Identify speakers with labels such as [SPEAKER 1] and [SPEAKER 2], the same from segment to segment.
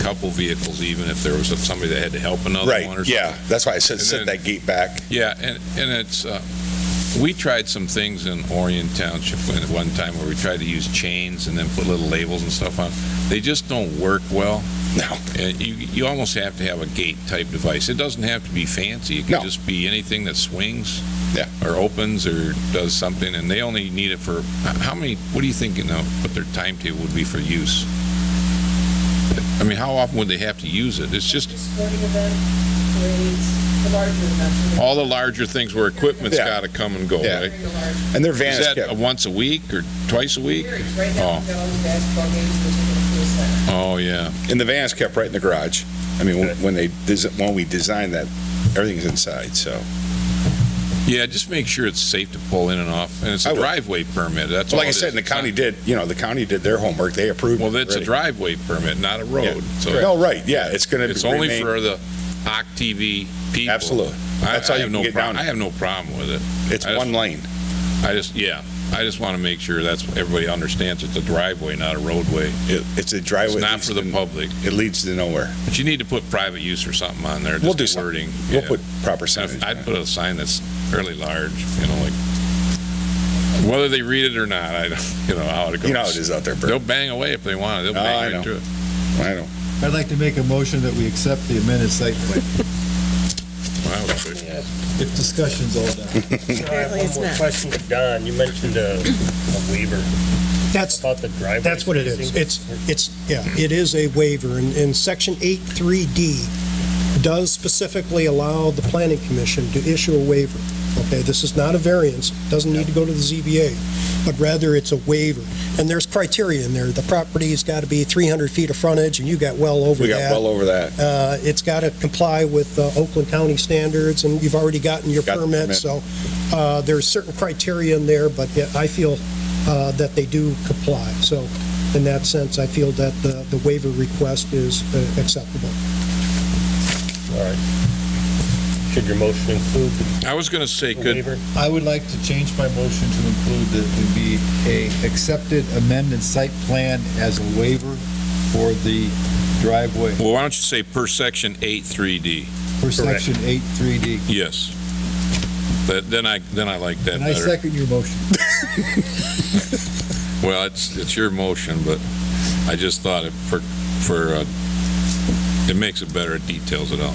[SPEAKER 1] couple vehicles, even if there was somebody that had to help another one or
[SPEAKER 2] Right,
[SPEAKER 1] something.
[SPEAKER 2] yeah, that's why I said,
[SPEAKER 1] And
[SPEAKER 2] set
[SPEAKER 1] then-
[SPEAKER 2] that gate back.
[SPEAKER 1] Yeah, and, and it's, uh, we tried some things in Orion Township when- at one time where we tried to use chains and then put little labels and stuff on. They just don't work well.
[SPEAKER 2] No,
[SPEAKER 1] And you, you almost have to have a gate type device. It doesn't have to be fancy. It can
[SPEAKER 2] No.
[SPEAKER 1] just be anything that swings.
[SPEAKER 2] Yeah.
[SPEAKER 1] Or opens or does something, and they only need it for, how many, what do you think, you know, what their timetable would be for use? I mean, how often would they have to use it? It's just,
[SPEAKER 3] Sporting event, parades, the larger events.
[SPEAKER 1] all the larger things where equipment's
[SPEAKER 2] Yeah.
[SPEAKER 1] gotta come and go,
[SPEAKER 2] Yeah.
[SPEAKER 1] right?
[SPEAKER 3] Very large.
[SPEAKER 2] and their van
[SPEAKER 1] Is
[SPEAKER 2] is
[SPEAKER 1] that a
[SPEAKER 2] kept,
[SPEAKER 1] once a week or twice a week?
[SPEAKER 3] Periods. Right now,
[SPEAKER 1] Oh.
[SPEAKER 3] we've got all the basketball games, which is the first center.
[SPEAKER 1] Oh, yeah.
[SPEAKER 2] and the van is kept right in the garage. I mean, when- when they, desi- when we designed that, everything's inside, so.
[SPEAKER 1] Yeah, just make sure it's safe to pull in and off. And it's
[SPEAKER 2] I
[SPEAKER 1] a
[SPEAKER 2] will.
[SPEAKER 1] driveway permit, that's all
[SPEAKER 2] Like I
[SPEAKER 1] it is.
[SPEAKER 2] said, and the
[SPEAKER 1] It's not-
[SPEAKER 2] county did, you know, the county did their homework, they approved.
[SPEAKER 1] Well, that's a
[SPEAKER 2] already.
[SPEAKER 1] driveway permit, not a road. So
[SPEAKER 2] No, right, yeah, it's gonna
[SPEAKER 1] it's only
[SPEAKER 2] remain,
[SPEAKER 1] for the Hawk TV people.
[SPEAKER 2] absolutely.
[SPEAKER 1] I,
[SPEAKER 2] That's how
[SPEAKER 1] I
[SPEAKER 2] you
[SPEAKER 1] have
[SPEAKER 2] can
[SPEAKER 1] no
[SPEAKER 2] get
[SPEAKER 1] problem.
[SPEAKER 2] down.
[SPEAKER 1] I have no problem with it.
[SPEAKER 2] It's
[SPEAKER 1] I just-
[SPEAKER 2] one lane.
[SPEAKER 1] I just, yeah, I just want to make sure that's, everybody understands it's a driveway, not a roadway.
[SPEAKER 2] It- It's a
[SPEAKER 1] It's
[SPEAKER 2] driveway.
[SPEAKER 1] not for the public.
[SPEAKER 2] It leads to nowhere.
[SPEAKER 1] But you need to put private use or something on there.
[SPEAKER 2] We'll
[SPEAKER 1] just
[SPEAKER 2] do
[SPEAKER 1] the
[SPEAKER 2] something.
[SPEAKER 1] wording.
[SPEAKER 2] We'll
[SPEAKER 1] Yeah.
[SPEAKER 2] put proper
[SPEAKER 1] And if-
[SPEAKER 2] signage. on
[SPEAKER 1] I'd
[SPEAKER 2] it.
[SPEAKER 1] put a sign that's fairly large, you know, like, whether they read it or not, I don't, you know, how it goes.
[SPEAKER 2] You know how it is out there,
[SPEAKER 1] They'll
[SPEAKER 2] Bert.
[SPEAKER 1] bang away if they want to. They'll
[SPEAKER 2] Oh, I
[SPEAKER 1] bang right
[SPEAKER 2] know.
[SPEAKER 1] through it.
[SPEAKER 2] I know.
[SPEAKER 4] I'd like to make a motion that we accept the amended site plan,
[SPEAKER 1] Wow, that's good.
[SPEAKER 4] if discussion's all done.
[SPEAKER 5] Apparently it's not. Question to Don, you mentioned a a waiver
[SPEAKER 6] That's,
[SPEAKER 5] about the driveway.
[SPEAKER 6] that's what it is.
[SPEAKER 5] spacing.
[SPEAKER 6] It's, it's, yeah, it is a waiver, and, and section 83D does specifically allow the planning commission to issue a waiver. Okay, this is not a variance, doesn't need to go to the ZBA, but rather it's a waiver. And there's criteria in there, the property's got to be 300 feet of frontage, and you got well over
[SPEAKER 2] We got
[SPEAKER 6] that.
[SPEAKER 2] well over that.
[SPEAKER 6] Uh, It's got to comply with uh, Oakland County standards, and you've already gotten your
[SPEAKER 2] Got the
[SPEAKER 6] permit,
[SPEAKER 2] permit.
[SPEAKER 6] so uh, there's certain criteria in there, but yeah, I feel uh, that they do comply. So in that sense, I feel that the the waiver request is uh, acceptable.
[SPEAKER 5] All right. Should your motion include
[SPEAKER 1] I was going to say,
[SPEAKER 5] the
[SPEAKER 1] could,
[SPEAKER 5] waiver?
[SPEAKER 4] I would like to change my motion to include that it would be a accepted amended site plan as a waiver for the driveway
[SPEAKER 1] well, why don't you say per section eight three d
[SPEAKER 4] for
[SPEAKER 5] Correct.
[SPEAKER 4] section eight three D.
[SPEAKER 1] Yes. But then I, then I like that
[SPEAKER 4] And I
[SPEAKER 1] better.
[SPEAKER 4] second your motion.
[SPEAKER 1] Well, it's, it's your motion, but I just thought it for, for, uh, it makes it better, it details it out.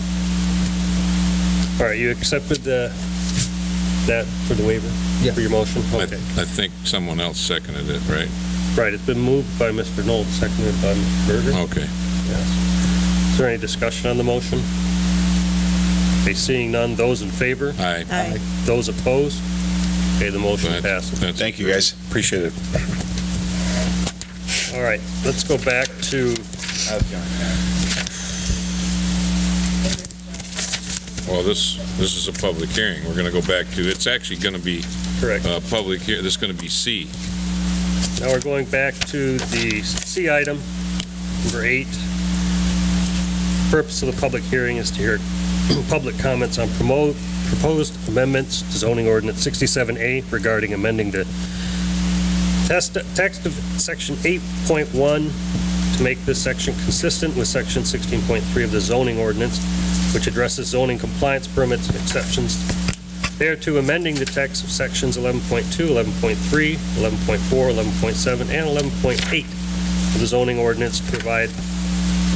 [SPEAKER 5] All right, you accepted the, that for the waiver?
[SPEAKER 4] Yeah.
[SPEAKER 5] For your motion?
[SPEAKER 1] I,
[SPEAKER 5] Okay.
[SPEAKER 1] I think someone else seconded it, right?
[SPEAKER 5] Right, it's been moved by Mr. Knoll, seconded by Mr. Berger.
[SPEAKER 1] Okay.
[SPEAKER 5] Yes. Is there any discussion on the motion? Okay, seeing none, those in favor,
[SPEAKER 1] I,
[SPEAKER 7] Aye.
[SPEAKER 5] those opposed? Okay, the motion
[SPEAKER 1] That's-
[SPEAKER 5] passes.
[SPEAKER 1] that's-
[SPEAKER 2] Thank you, guys. Appreciate it.
[SPEAKER 5] All right, let's go back to
[SPEAKER 1] Well, this, this is a public hearing. We're going to go back to, it's actually going to be
[SPEAKER 5] Correct.
[SPEAKER 1] uh public here, this is going to be C.
[SPEAKER 5] Now we're going back to the C item, number eight. Purpose of the public hearing is to hear public comments on promote, proposed amendments to zoning ordinance 67A regarding amending the test, text of section 8.1 to make this section consistent with section 16.3 of the zoning ordinance, which addresses zoning compliance permits and exceptions thereto amending the text of sections 11.2, 11.3, 11.4, 11.7, and 11.8 of the zoning ordinance to provide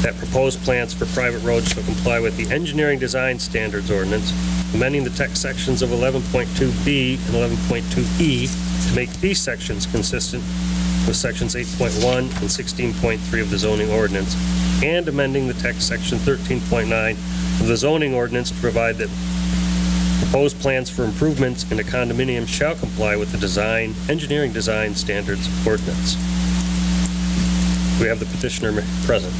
[SPEAKER 5] that proposed plans for private roads shall comply with the engineering design standards ordinance, amending the text sections of 11.2B and 11.2E E to make these sections consistent with sections 8.1 and 16.3 of the zoning ordinance, and amending the text section 13.9 of the zoning ordinance to provide that Proposed plans for improvements in a condominium shall comply with the design, engineering design standards ordinance. We have the petitioner present.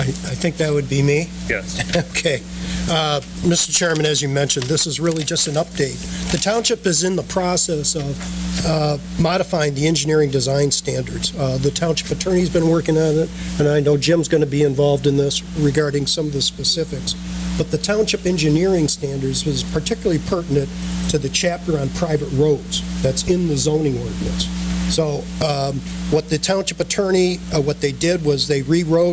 [SPEAKER 6] I I think that would be me.
[SPEAKER 5] Yes.
[SPEAKER 6] Okay. Uh, Mr. Chairman, as you mentioned, this is really just an update. The township is in the process of uh, modifying the engineering design standards. Uh, The township attorney's been working on it, and I know Jim's going to be involved in this regarding some of the specifics. But the township engineering standards is particularly pertinent to the chapter on private roads that's in the zoning ordinance. So um, what the township attorney, uh, what they did was they rewrote